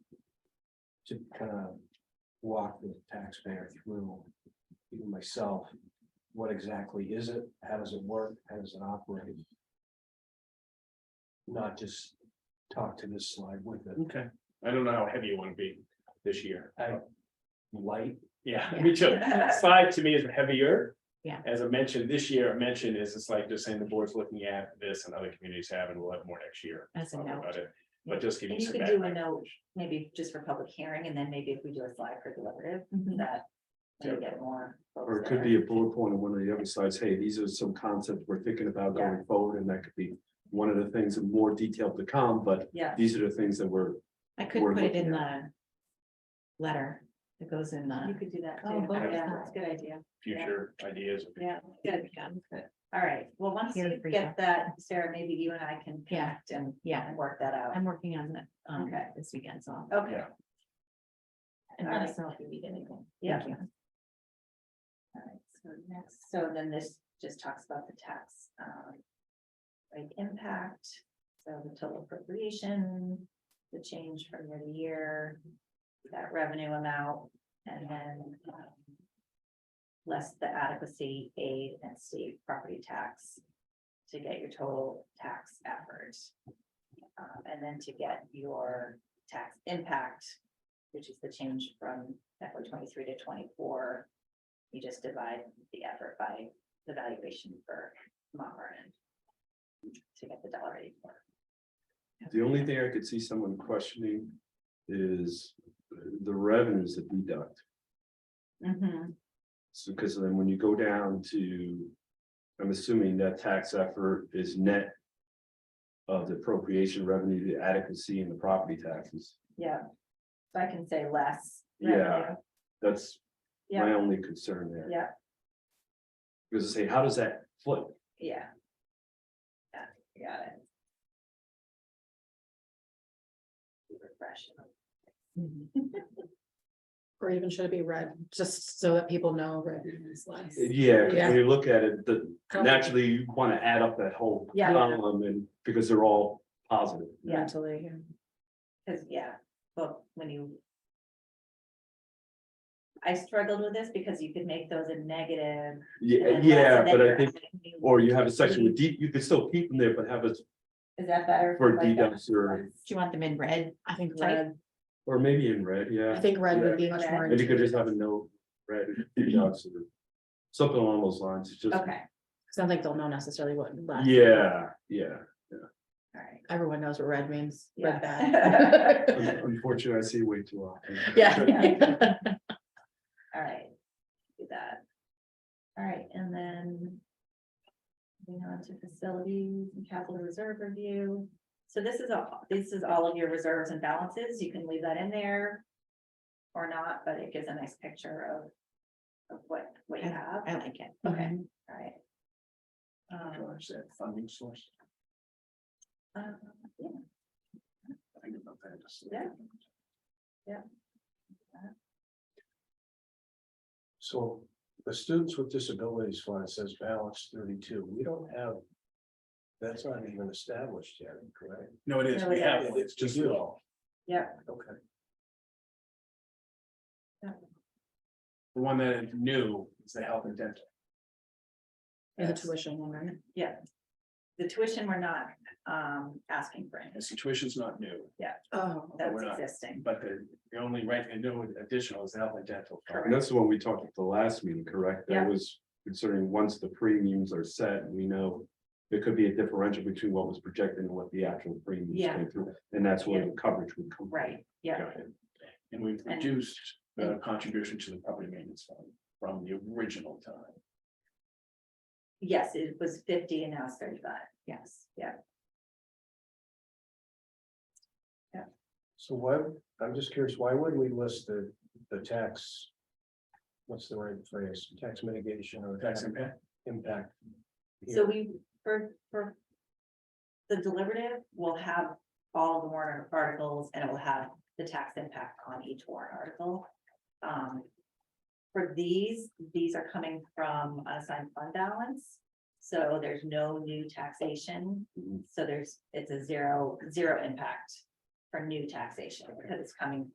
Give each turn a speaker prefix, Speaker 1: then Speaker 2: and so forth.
Speaker 1: to kind of walk the taxpayer through, even myself, what exactly is it? How does it work? How does it operate? Not just talk to this slide with it.
Speaker 2: Okay, I don't know how heavy you want to be this year.
Speaker 1: I light,
Speaker 2: Yeah, me too. Slide to me is heavier.
Speaker 3: Yeah.
Speaker 2: As I mentioned, this year, I mentioned is it's like just saying the board's looking at this and other communities have, and we'll have more next year.
Speaker 3: As a
Speaker 2: talking
Speaker 3: note,
Speaker 2: about it. But just give you
Speaker 4: And you
Speaker 2: some
Speaker 4: could do a
Speaker 2: background.
Speaker 4: note, maybe just for public hearing, and then maybe if we do a slide for deliberative, that
Speaker 2: Yeah.
Speaker 4: we get more. folks
Speaker 5: Or it
Speaker 4: that
Speaker 5: could
Speaker 4: are-
Speaker 5: be a bullet point on one of the other slides, hey, these are some concepts we're thinking about going forward, and that could be. One of the things in more detail to come, but
Speaker 4: Yeah,
Speaker 5: these are the things that we're,
Speaker 3: I could
Speaker 5: We're
Speaker 3: put it
Speaker 5: looking
Speaker 3: in the letter that goes in
Speaker 4: you
Speaker 3: the.
Speaker 4: could do that
Speaker 3: Oh,
Speaker 4: too.
Speaker 3: both
Speaker 4: Yeah,
Speaker 3: sides.
Speaker 4: that's a good idea.
Speaker 2: future ideas.
Speaker 4: Yeah, good. All right. Well, once
Speaker 3: Here
Speaker 4: you
Speaker 3: for you.
Speaker 4: get that, Sarah, maybe you and I can
Speaker 3: Yeah.
Speaker 4: connect and,
Speaker 3: Yeah,
Speaker 4: and work that out.
Speaker 3: I'm working on that, um,
Speaker 4: Okay.
Speaker 3: this weekend, so.
Speaker 6: Oh,
Speaker 3: I'll-
Speaker 4: Okay.
Speaker 2: Yeah.
Speaker 3: And let
Speaker 4: Alright.
Speaker 3: us know if you need anything.
Speaker 4: Yeah.
Speaker 3: Thank you.
Speaker 4: All right. So next, so then this just talks about the tax, um, like impact, so the total appropriation, the change from year to year, that revenue amount, and then um, less the adequacy aid and state property tax to get your total tax effort. Um, and then to get your tax impact, which is the change from FY twenty-three to twenty-four. You just divide the effort by the valuation for Mount Vernon. To get the dollar eighty-four.
Speaker 5: the only thing I could see someone questioning. Is the revenues that deduct,
Speaker 4: Mm-hmm,
Speaker 5: so because then when you go down to. I'm assuming that tax effort is net. Of the appropriation revenue, the adequacy and the property taxes,
Speaker 4: Yeah. So I can say less.
Speaker 5: Yeah.
Speaker 4: revenue.
Speaker 5: that's my
Speaker 4: Yeah,
Speaker 5: only concern there,
Speaker 4: yeah,
Speaker 5: because I say, how does that flip?
Speaker 4: yeah. Yeah, got it. Refresh.
Speaker 6: Or even should it be red, just so that people know red is less?
Speaker 5: Yeah, 'cause
Speaker 6: Yeah.
Speaker 5: when you look at it, the,
Speaker 6: Couple.
Speaker 5: naturally, you wanna add up that whole
Speaker 4: Yeah.
Speaker 5: column and, because they're all positive.
Speaker 4: Yeah,
Speaker 6: Mentally, yeah.
Speaker 4: Cause yeah, but when you. I struggled with this because you could make those a negative. and
Speaker 5: Yeah,
Speaker 4: then less,
Speaker 5: yeah,
Speaker 4: and then
Speaker 5: but I
Speaker 4: you're
Speaker 5: think,
Speaker 4: adding new-
Speaker 5: or you have a section with deep, you could still keep them there, but have it
Speaker 4: Is that better?
Speaker 5: for
Speaker 4: like that?
Speaker 5: deducts or,
Speaker 3: Do you want them in red?
Speaker 6: I think
Speaker 3: Like-
Speaker 6: red,
Speaker 5: or maybe in red,
Speaker 6: I
Speaker 5: yeah.
Speaker 6: think red would be much
Speaker 4: Okay.
Speaker 6: more.
Speaker 5: And you could just have a note, red,
Speaker 2: Mm-hmm.
Speaker 5: deducts or something along those lines, it's just,
Speaker 4: Okay,
Speaker 6: It's not like they'll know necessarily what less.
Speaker 5: yeah, yeah.
Speaker 4: all right.
Speaker 6: Everyone knows what red means,
Speaker 4: Yeah.
Speaker 6: red bad.
Speaker 5: Un- Unfortunately, I see way too often.
Speaker 6: Yeah.
Speaker 4: All right, do that. All right, and then. Moving on to facilities and capital reserve review. So this is all, this is all of your reserves and balances. You can leave that in there. Or not, but it gives a nice picture of. Of what, what you have.
Speaker 3: I like it. Mm-hmm.
Speaker 4: Okay, all right. Um,
Speaker 1: drives that funding source.
Speaker 4: um, yeah,
Speaker 1: Think about that just a
Speaker 4: Yeah.
Speaker 1: second.
Speaker 4: Yeah.
Speaker 1: So the students with disabilities fund says balance thirty-two. We don't have. That's not even established yet, correct?
Speaker 2: No, it
Speaker 4: is. No, We it have is.
Speaker 1: It's just you all.
Speaker 4: Yeah.
Speaker 1: Okay.
Speaker 2: The one that is new is the health and dental.
Speaker 6: And the
Speaker 4: yes.
Speaker 6: tuition one, right?
Speaker 4: The tuition, we're not um asking for any,
Speaker 2: The situation's not new,
Speaker 6: Oh,
Speaker 2: That-
Speaker 4: that's
Speaker 2: we're not.
Speaker 4: existing.
Speaker 2: but the, the only right and new additional is the health and dental.
Speaker 5: And that's the one we talked at the last meeting, correct? That
Speaker 4: Yeah.
Speaker 5: was concerning once the premiums are set, we know. There could be a differential between what was projected and what the actual premiums
Speaker 4: Yeah.
Speaker 5: came through, and that's where the coverage would come. from.
Speaker 4: Right, yeah,
Speaker 2: Got it. And we've
Speaker 4: And-
Speaker 2: reduced the contribution to the property maintenance fund from the original time.
Speaker 4: yes, it was fifty and now it's thirty-five.
Speaker 3: Yes.
Speaker 1: So why, I'm just curious, why would we list the, the tax? What's the right phrase? Tax mitigation or
Speaker 2: Tax
Speaker 1: tax
Speaker 2: impact,
Speaker 1: impact? here?
Speaker 4: So we, for, for. The deliberative will have all the warrant articles and it will have the tax impact on each warrant article. Um. For these, these are coming from unassigned fund balance, so there's no new taxation.
Speaker 2: Mm-hmm.
Speaker 4: So there's, it's a zero, zero impact for new taxation because it's coming